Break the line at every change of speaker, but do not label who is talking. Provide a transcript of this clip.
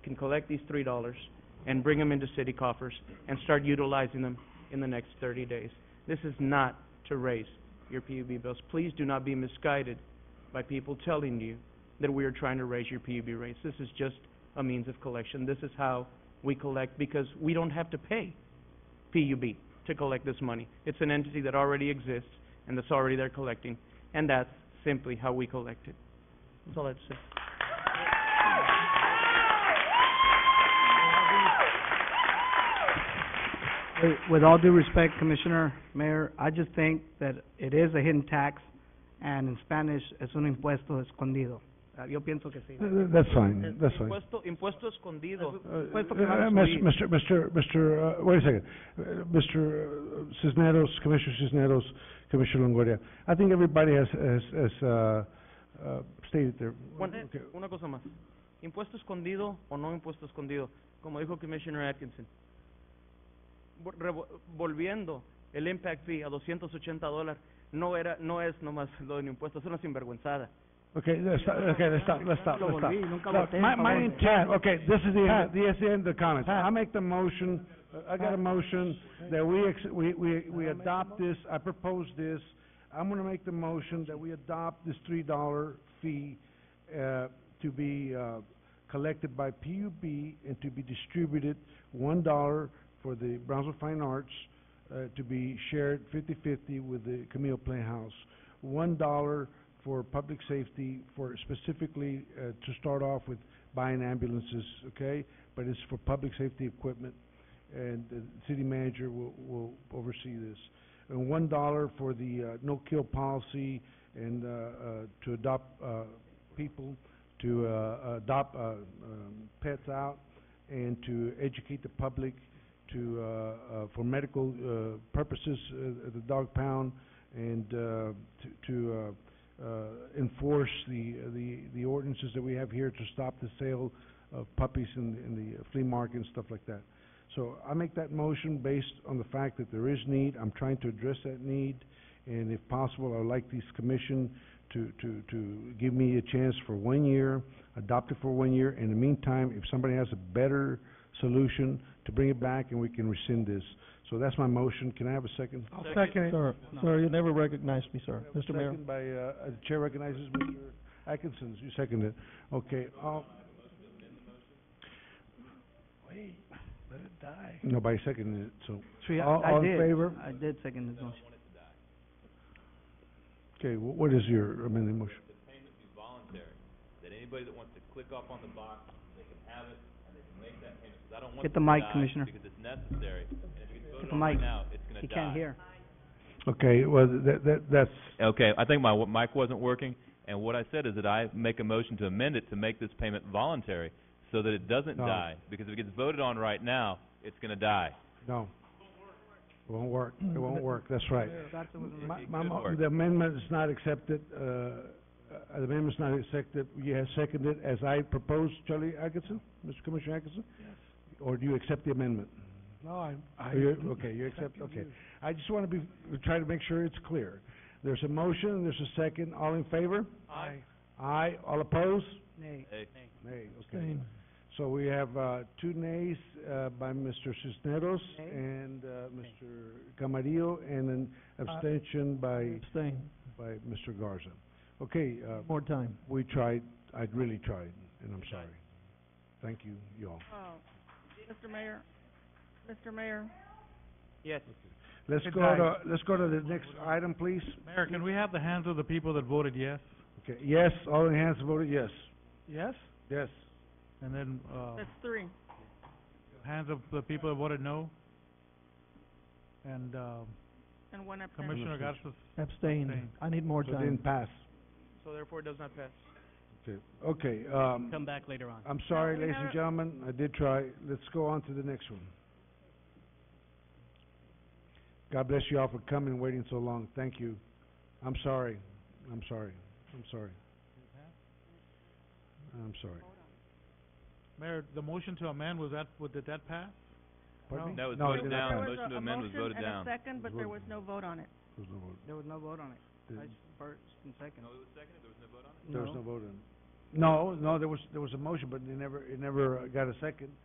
can collect these three dollars and bring them into city coffers and start utilizing them in the next thirty days. This is not to raise your PUB bills. Please do not be misguided by people telling you that we are trying to raise your PUB rates. This is just a means of collection. This is how we collect because we don't have to pay PUB to collect this money. It's an entity that already exists and that's already there collecting, and that's simply how we collect it. That's all I have to say.
With- With all due respect, Commissioner, Mayor, I just think that it is a hidden tax, and in Spanish, es un impuesto escondido. Uh, Yo pienso que sí.
Th- th- That's fine, that's fine.
Impuesto, impuesto escondido.
Uh, uh,
Puesto que van a
uh, Mis-
subir.
Mr., Mr., Mr., uh, wait a second, Uh, Mr. Cisneros, Commissioner Cisneros, Commissioner Longoria, I think everybody has, has, has, uh, uh, stated their.
One-
okay.
Una cosa más. Impuesto escondido o no impuesto escondido, como dijo Commissioner Atkinson. Vo- revo- Volviendo el impact fee a 280 dólares, no era, no es nomás lo de impuesto, es una sinvergüenzada.
Okay, let's stop, okay, let's stop, let's stop, let's stop.
Volví, nunca
Look,
voté en
My, my
favor.
intent, okay, this is the, end- the, is the end of the comments. I make the motion, uh, I got a motion that we, ex- we, we, we adopt this, I propose this. I'm gonna make the motion that we adopt this three dollar fee, uh, to be, uh, collected by PUB and to be distributed, one dollar for the Brownsville Fine Arts, uh, to be shared fifty-fifty with the Camille Playhouse. One dollar for public safety, for specifically, uh, to start off with buying ambulances, okay? But it's for public safety equipment, and the city manager will, will oversee this. And one dollar for the, uh, no-kill policy and, uh, uh, to adopt, uh, people, to, uh, adopt, uh, um, pets out, and to educate the public to, uh, uh, for medical, uh, purposes, uh, the dog pound, and, uh, to, to, uh, uh, enforce the, the, the ordinances that we have here to stop the sale of puppies in, in the flea market and stuff like that. So I make that motion based on the fact that there is need, I'm trying to address that need, and if possible, I would like this commission to, to, to give me a chance for one year, adopt it for one year. In the meantime, if somebody has a better solution, to bring it back and we can rescind this. So that's my motion, can I have a second?
I'll second it. Sir, sir, you never recognized me, sir. Mr. Mayor.
Second by, uh, uh, Chair recognizes Mr. Atkinson, you second it. Okay, um, all. Wait, let it die. Nobody seconded it, so,
Three- I-
all,
I
all in
did.
favor?
I did second his motion.
Okay, wh- what is your amended motion?
Get the mic, Commissioner. Get the mic. He can't hear.
Okay, well, that, that, that's,
Okay, I think my w- mic wasn't working, and what I said is that I make a motion to amend it to make this payment voluntary so that it doesn't
Oh.
No.
die, because if it gets voted on right now, it's gonna die.
no. It won't work, it won't work, Mm-hmm. that's right. My,
It
my,
could
mo-
work.
the amendment is not accepted, uh, uh, the amendment's not accepted, you have seconded as I proposed, Charlie Atkinson, Mr. Commissioner Atkinson? Or do you accept the amendment? No, I, I. Okay, you accept, okay. I just wanna be, try to make sure it's clear. There's a motion, there's a second, all in favor?
Aye.
Aye, all opposed?
Nay.
Hey,
Nay, okay. So we have, uh, two nays, uh, by Mr. Cisneros
Nay. Uh,
and, uh, Mr. Camarillo, and an abstention by,
Abstain.
by Mr. Garza. Okay, uh,
More time.
we tried, I really tried, and I'm sorry. Thank you, y'all.
Oh, Mr. Mayor, Mr. Mayor,
Yes.
Let's
Good
go
night.
to, let's go to the next item, please.
Mayor, can we have the hands of the people that voted yes?
Okay, yes, all in hands voted yes.
Yes.
Yes.
And then, uh,
that's three.
hands of the people that voted no? And, uh,
And one abstention.
Commissioner Garza's
Abstain.
Abstain.
I need more
So it
time.
didn't pass.
So therefore it does not pass.
Okay, okay, um. Come back later on. I'm sorry,
we
ladies and
never-
gentlemen, I did try. Let's go on to the next one. God bless you all for coming and waiting so long. Thank you. I'm sorry. I'm sorry. I'm sorry. I'm sorry.
Mayor, the motion to amend, was that, would, did that pass?
Pardon me?
That was
No, it
voted
did
There
not pass.
down.
was
Motion
a-
to amend was voted down.
A motion and a second, but there was
Voted.
no vote on it.
There was no vote.
There was no vote on it. I
There-
s- first and second.
There was no vote on it. No, no, there was, there was a motion, but it never, it never uh, got a second.